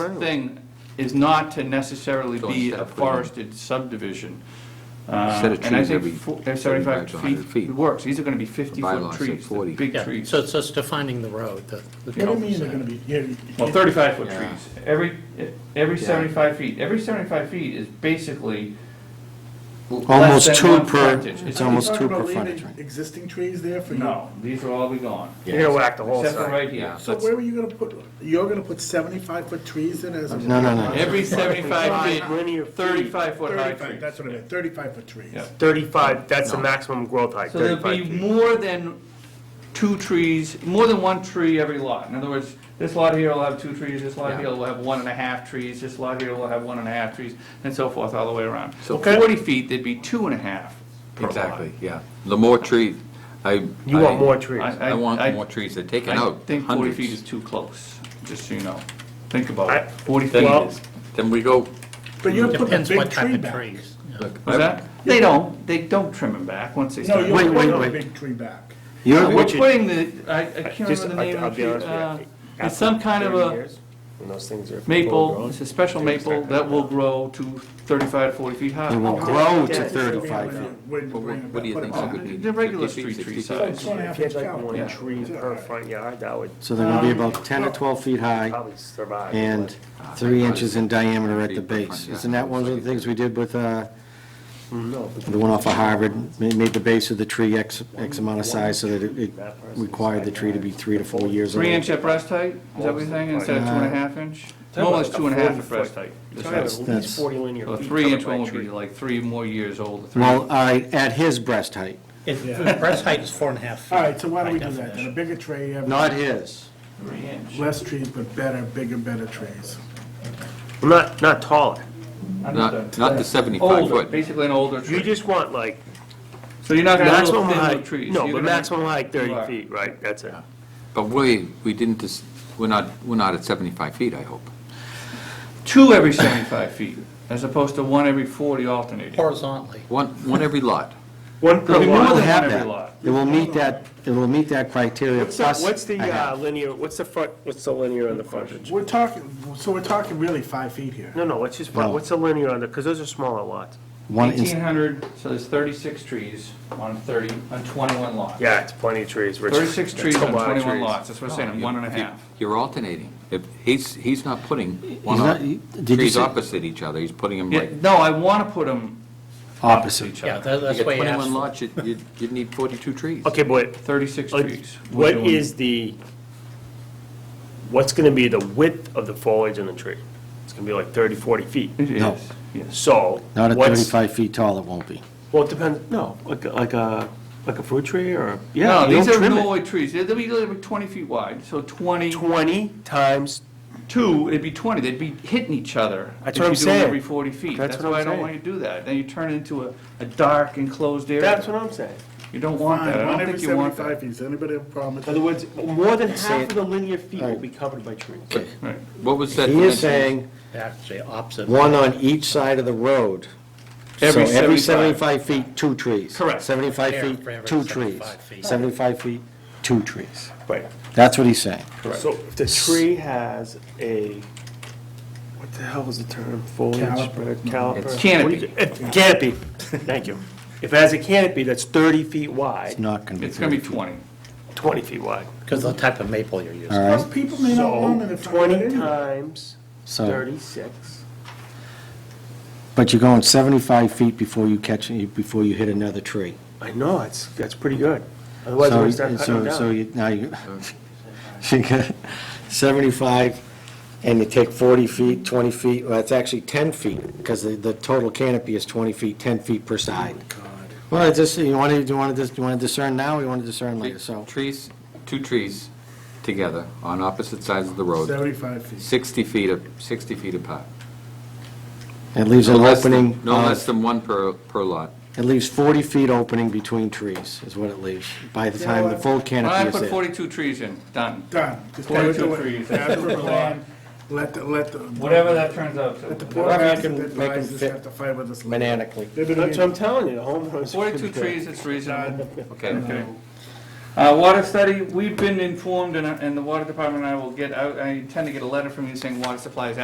thing is not to necessarily Don't be step a in. forested subdivision. Uh, Set of And I trees think every fo- uh, 75 75 to feet 100 feet. works. These are going to be 50-foot bylaw said trees, the 40. big Yeah, trees. So it's just defining the road, the. the What do you mean they're cul-de-sac. gonna be, yeah. Well, 35-foot Yeah. trees. Every, e, every Yeah. 75 feet, every 75 feet is basically l- less Almost than two one per, frontage. It's- it's almost two per frontage, right? Existing trees there for you? No, these will all be gone, You're gonna whack the except for right here. Yeah. So where were you gonna put, you're gonna put seventy-five foot trees in as a? No, no, no. Every 75 feet, Linear feet. 35-foot high Thirty-five, trees. that's what I meant, thirty-five foot trees. Yeah. 35, that's the maximum growth height, So there'll 35 be feet. more than two trees, more than one tree every lot. In other words, this lot here will have two trees, this lot Yeah. here will have one and a half trees, this lot here will have one and a half trees, and so forth all the way around. So So- forty feet, there'd be two and a half per lot. Exactly, yeah. The more trees, I. You I- want more trees. I- I I- want more trees. They're taking I out think forty feet is hundreds. too close, just so you know. Think about I- it, forty feet Well- is, Then we go, But you're putting a Depends big what tree type of back. trees. look, was I- that? They don't, they don't trim them back once they No, start. you're Wait, wait, putting a wait. big tree back. No, You're, We're what you- putting the, I, I can't Just- remember the name I'll- I'll of be the tree. honest with you, uh, It's after some kind of 30 a years, When those things are. maple, full-grown, it's a special they just maple start that coming will out. grow to 35, 40 feet high. it will grow to 35 feet. Where you Well, bring it what do you back, think, put it Augie? back. be The regular 50 street feet, tree 60 size. Two and a half If you inch had like caliber. one Yeah. tree per front yard, that would So they're gonna be about 10 to 12 feet high probably survive. and three inches in diameter at the base. Isn't that one of the things we did with, uh, the one off of Harvard? Ma- Made the base of the tree X, X amount of size so that it- it required the tree to be three to four years old. Three inch at breast height, is that what you're saying, instead of two Uh, and a half inch? Normally it's two and a half at breast height. You're talking about That's- at that's- least 40 linear So a feet three covered inch by one would tree. be like three more years old. three- Well, uh, I- at his breast height, It- the Breast height is four and a half feet. All right, so why don't we by do that, then a definition. bigger tree, have not his. Three inch. less trees, but better, bigger, better trees. Not, not taller. Not, not the 75 Older, foot. basically an older You tree. just want like So you're not gonna have little maximum thin little height, trees. no, You're but gonna- maximum height You 30 are. feet, right, that's it. But we, we didn't, dis- we're not, we're not at 75 feet, I hope. Two every 75 feet, as opposed to one every 40 alternating. Horizontally. One, one every lot. One per There'll be more than It'll lot. have one every that. lot. It will meet that, it will meet that criteria What's the- plus. what's the a half. uh, linear, what's the front, what's the linear on the frontage? We're talking, so we're talking really five feet here. No, no, what's just, front- No. what's the linear on the, because those are smaller lots. One inch. 1,800, so there's 36 trees on 30, on 21 lots. Yeah, it's plenty of trees, Richard. 36 That's trees a on lot of 21 trees. lots, that's what I'm saying, Oh, one and a half. You're alternating. If, he's, he's not putting one not- op- he- did you trees say- opposite each other. He's putting them Yeah, like, no, I want to put them Opposite. each Yeah, other, tha- that's you why get you 21 lots, asked. you, you- you'd need 42 trees. Okay, but 36 uh, trees. what We're doing- is the, what's going to be the width of the foliage in the tree? It's going to be like 30, 40 feet. It No. is, yes. So. Not at what's- 35 feet tall, it won't be. Well, it depends, no, like, a- like a, like a fruit tree or, yeah, No, you these don't are trim it. Norway trees, they'll be they'll be 20 feet wide, so 20, 20 times, two, it'd be 20, they'd be hitting each other. That's if what I'm you do it saying. Every 40 feet, That's that's what I'm why I don't saying. want you to do that, then you turn it into a, a dark enclosed that's area. what I'm saying. You don't want that, Fine, I one don't every think you want that. 75 feet. Does anybody have a problem with In that? other words, more than half of the linear feet will be covered by trees. Right. What was that? He is dimension? saying Actually, opposite. one on each side of the road. Every So every 75. 75 feet, two trees. Correct. 75 Yeah, feet, for every two 75 trees. feet. 75 feet, two trees. Right. That's what he's saying. So if the tree has a, what the hell was the term, foliage, Caliper. bird, caliper? Canopy. If- Canopy, thank you. If it has a canopy that's 30 feet It's wide, not going to be. It's gonna be 30 feet. 20. 20 feet wide. Because of the type of maple you're using. All Plus, right, people may not want it if So I did 20 anyway. times so, 36. but you're going 75 feet before you catch, before you hit another tree. I know, it's, that's pretty good. Otherwise, So, we start cutting so, so down. you, now you, you got 75, and you take 40 feet, 20 feet, well, it's actually 10 feet, because the, the total canopy is 20 feet, 10 feet per side. Well, it's just, you want to, you want to, you want to discern now, or you want to discern later, so. Trees, two trees together on opposite sides of the road, 75 feet. 60 feet, a- 60 feet apart. It leaves an No less than- opening, uh, No of- less than one per, per lot. it leaves 40 feet opening between trees, is what it leaves, by the time the full When I canopy is put there. 42 trees in, done. Done. Just gotta 42 do it. trees, As that's per what we plan. want. Let the, let the. Whatever that turns out to. Let the poor Whatever you guys can that make 'em advise us fit have to fight with us. later. Maniacally. They've been That's what I'm meeting. telling you, the homeowners. 42 trees, it's reasonable. Okay. Okay. Uh, water uh, study, we've been informed, and, and the water department and I will get, I, I intend to get a letter from you saying water supply is